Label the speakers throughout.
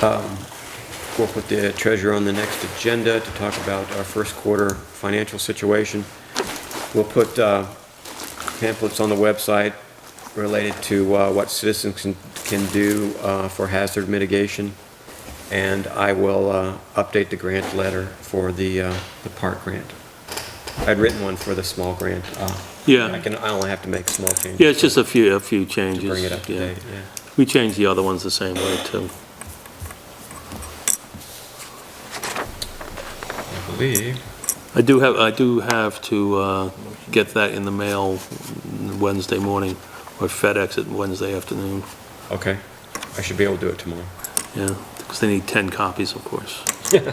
Speaker 1: Um, We'll put the treasurer on the next agenda to talk about our first quarter financial situation. We'll put uh, pamphlets on the website related to uh, what citizens can- can do uh, for hazard mitigation. And I will uh, update the grant letter for the, uh, the park grant. I'd written one for the small grant. uh, I
Speaker 2: Yeah,
Speaker 1: can, I only have to make small changes.
Speaker 2: yeah, it's just a few, a few changes.
Speaker 1: To bring it up to
Speaker 2: yeah.
Speaker 1: date, yeah.
Speaker 2: We changed the other ones the same way, too.
Speaker 1: I believe.
Speaker 2: I do have, I do have to uh, get that in the mail Wednesday morning, or FedEx it Wednesday afternoon,
Speaker 1: Okay. I should be able to do it tomorrow.
Speaker 2: yeah, because they need 10 copies, of course.
Speaker 3: Do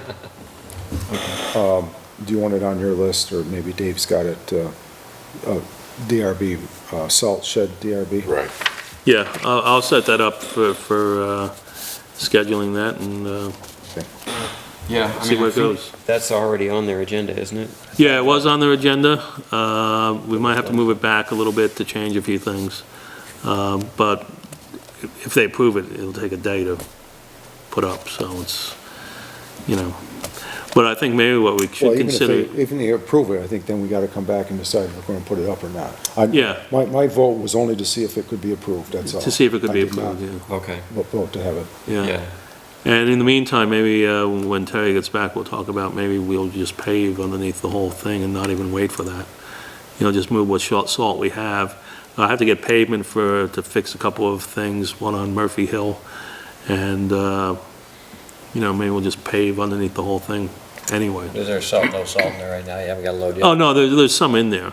Speaker 3: you want it on your list, or maybe Dave's got it, uh, uh, DRB, uh, salt shed DRB?
Speaker 4: Right.
Speaker 2: Yeah, I'll, I'll set that up for, for uh, scheduling that and uh,
Speaker 1: Yeah.
Speaker 2: see where it goes.
Speaker 1: That's already on their agenda, isn't it?
Speaker 2: Yeah, it was on their agenda. Uh, We might have to move it back a little bit to change a few things. Um, But if- if they approve it, it'll take a day to put up, so it's, you know. But I think maybe what we
Speaker 3: Well,
Speaker 2: should
Speaker 3: even if
Speaker 2: consider,
Speaker 3: they, even if they approve it, I think then we gotta come back and decide if we're gonna put it up or not. I-
Speaker 2: Yeah.
Speaker 3: My, my vote was only to see if it could be approved, that's all.
Speaker 2: to see if it could
Speaker 3: I
Speaker 2: be
Speaker 3: did not
Speaker 2: approved, yeah.
Speaker 1: Okay.
Speaker 3: vo- Vote to have it.
Speaker 2: yeah. And in the meantime, maybe uh, when Terry gets back, we'll talk about, maybe we'll just pave underneath the whole thing and not even wait for that. You know, just move what short salt we have. I have to get pavement for, to fix a couple of things, one on Murphy Hill. And, uh, you know, maybe we'll just pave underneath the whole thing anyway.
Speaker 5: Is there salt, no salt in there right now? You haven't got a load yet?
Speaker 2: Oh, no, there, there's some in there.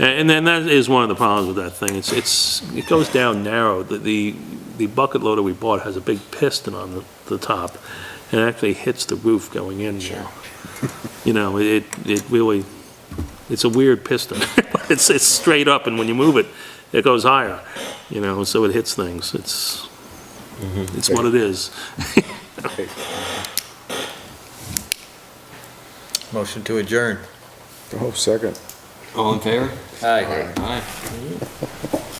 Speaker 2: A- And then that is one of the problems with that thing. It's, it's, it goes down narrow. The- The, the bucket loader we bought has a big piston on the, the top and it actually hits the roof going in now. You know, it, it really, it's a weird piston. It's, it's straight up and when you move it, it goes higher, you know, so it hits things. It's, it's what it is. Oh.
Speaker 5: Motion to adjourn.
Speaker 3: Oh, second.
Speaker 1: All in favor?
Speaker 5: Aye.
Speaker 1: Aye.